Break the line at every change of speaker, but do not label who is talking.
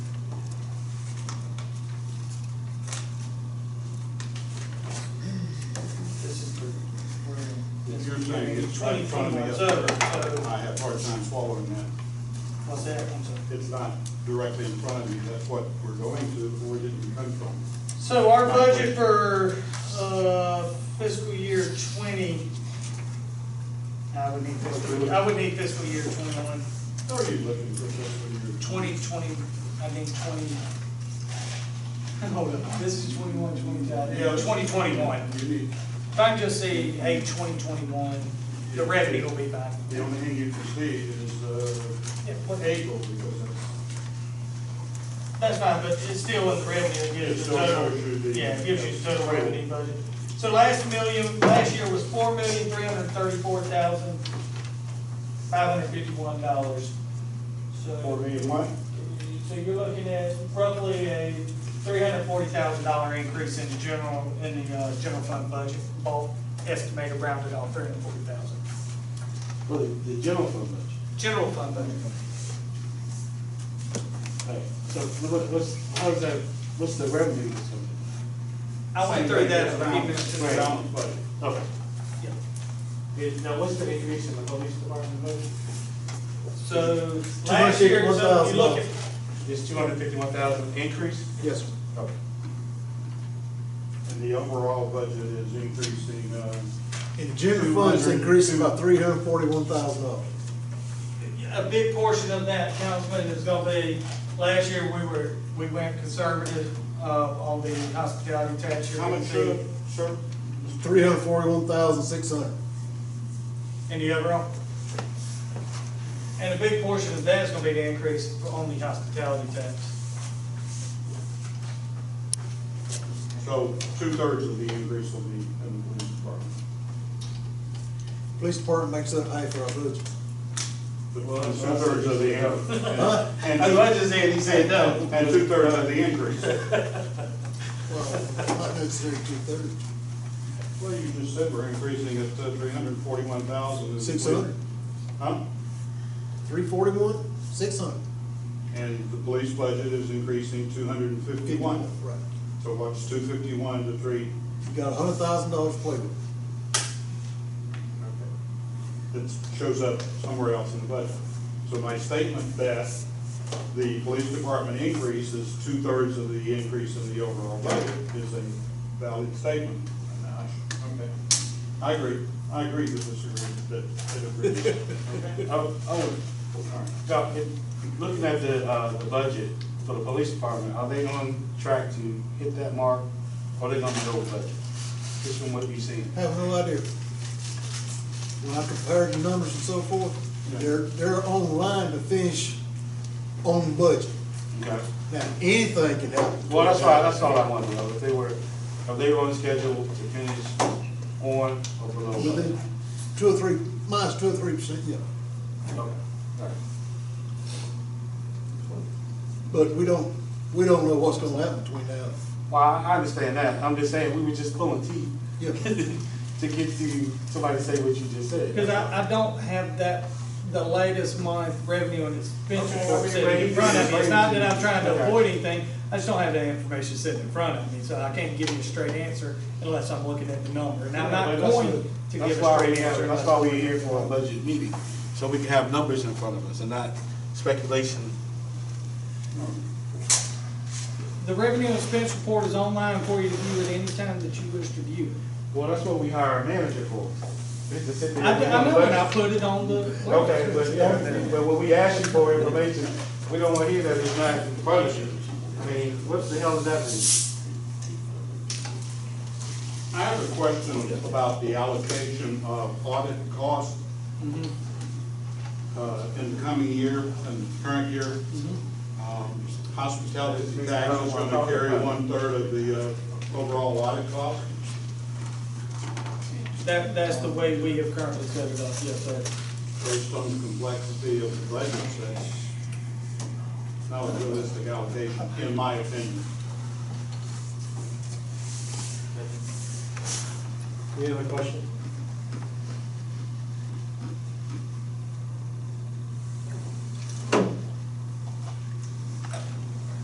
right in front of me.
Sir, sir.
I have a hard time swallowing that.
What's that, I'm sorry.
It's not directly in front of me, that's what we're going to, where did it come from?
So our budget for, uh, fiscal year twenty, I would need fiscal, I would need fiscal year twenty-one,
How are you looking for this when you're?
twenty, twenty, I think twenty. Hold up, this is twenty-one, twenty-two. Yeah, twenty twenty-one.
You need,
If I can just say, hey, twenty twenty-one, the revenue will be back.
the only thing you can see is,
Yeah,
uh,
what-
April, because it's,
That's fine, but it's still in the revenue, it gives you the
It still
total,
shows you the-
yeah, it gives you the total revenue budget. So last million, last year was four million, three hundred and thirty-four thousand, five hundred and fifty-one dollars.
for
So,
me, what?
so you're looking at roughly a three hundred and forty thousand dollar increase in the general, in the, uh, general fund budget, both estimated rounded off, three hundred and forty thousand.
Well, the, the general fund budget.
General fund budget.
Right. So what, what's, how's that, what's the revenue or something?
I went through that, but even
It's
to
a
the,
balanced budget.
Okay.
yeah.
Is- Now, what's the increase in the police department budget?
So last year, so if you look at,
This two hundred fifty-one thousand increase?
Yes, sir.
Okay.
And the overall budget is increasing, uh,
And the general fund is increasing by three hundred forty-one thousand dollars.
a big portion of that, Councilman, is gonna be, last year, we were, we went conservative, uh, on the hospitality tax. you're
How
gonna
much,
see-
uh, sir?
Three hundred forty-one thousand six hundred.
And the overall. And a big portion of that is gonna be the increase on the hospitality tax.
So two-thirds of the increase will be in the police department.
Police department makes up half of our budget.
Well, Two-thirds of the,
Huh?
and
That's what I
two-
just said, he said no.
and two-thirds of the increase.
Well, not necessarily two-thirds.
Well, you just said we're increasing it to three hundred and forty-one thousand.
Six hundred.
Huh?
Three forty-one, six hundred.
And the police budget is increasing two hundred and fifty-one.
Right.
So what's two fifty-one to three?
You got a hundred thousand dollars to play with.
That shows up somewhere else in the budget. So my statement that the police department increase is two-thirds of the increase in the overall budget is a valid statement. And I should- Okay. I agree, I agree with this agreement, that, that agrees. Okay.
Oh, oh,
All right.
Doc, if- looking at the, uh, the budget for the police department, are they on track to hit that mark? Or are they gonna be over budget? Just from what you've seen?
Have no idea. When I compared the numbers and so forth, they're, they're on line to finish on budget.
Okay.
Now, anything can happen.
Well, that's why, that's all I wanted to know, if they were, if they were on schedule to finish on or below. budget.
Within two or three, minus two or three percent, yeah.
Okay, all right.
But we don't, we don't know what's gonna happen between now. and-
Well, I I understand that, I'm just saying, we were just pulling teeth
Yeah,
to get to, somebody to say what you just said.
Because I, I don't have that, the latest month revenue and expenditure
Okay, I mean,
sitting in
raise-
front of me. It's not that I'm trying to
Okay.
avoid anything, I just don't have that information sitting in front of me, so I can't give you a straight answer unless I'm looking at the number, and I'm not
But that's
going
the-
to give a
that's why we
straight
have-
answer.
That's
unless-
why we're here for a budget meeting, so we can have numbers in front of us and not speculation.
The revenue and expense report is online for you to view at any time that you wish to view it.
Well, that's what we hire a manager for, is to sit there.
I,
and-
I know, and I put it on the.
Okay, but, yeah, but when we ask you for information, we don't want to hear that it's not in front of you. I mean, what the hell does that mean?
I have a question about the allocation of audit costs uh, in the coming year and current year. Um, Hospitality tax is going to carry one-third of the uh, overall audit cost.
That, that's the way we have currently set it up, yes, sir.
Based on the complexity of the budget, that's not a realistic allocation, in my opinion.
Any other question?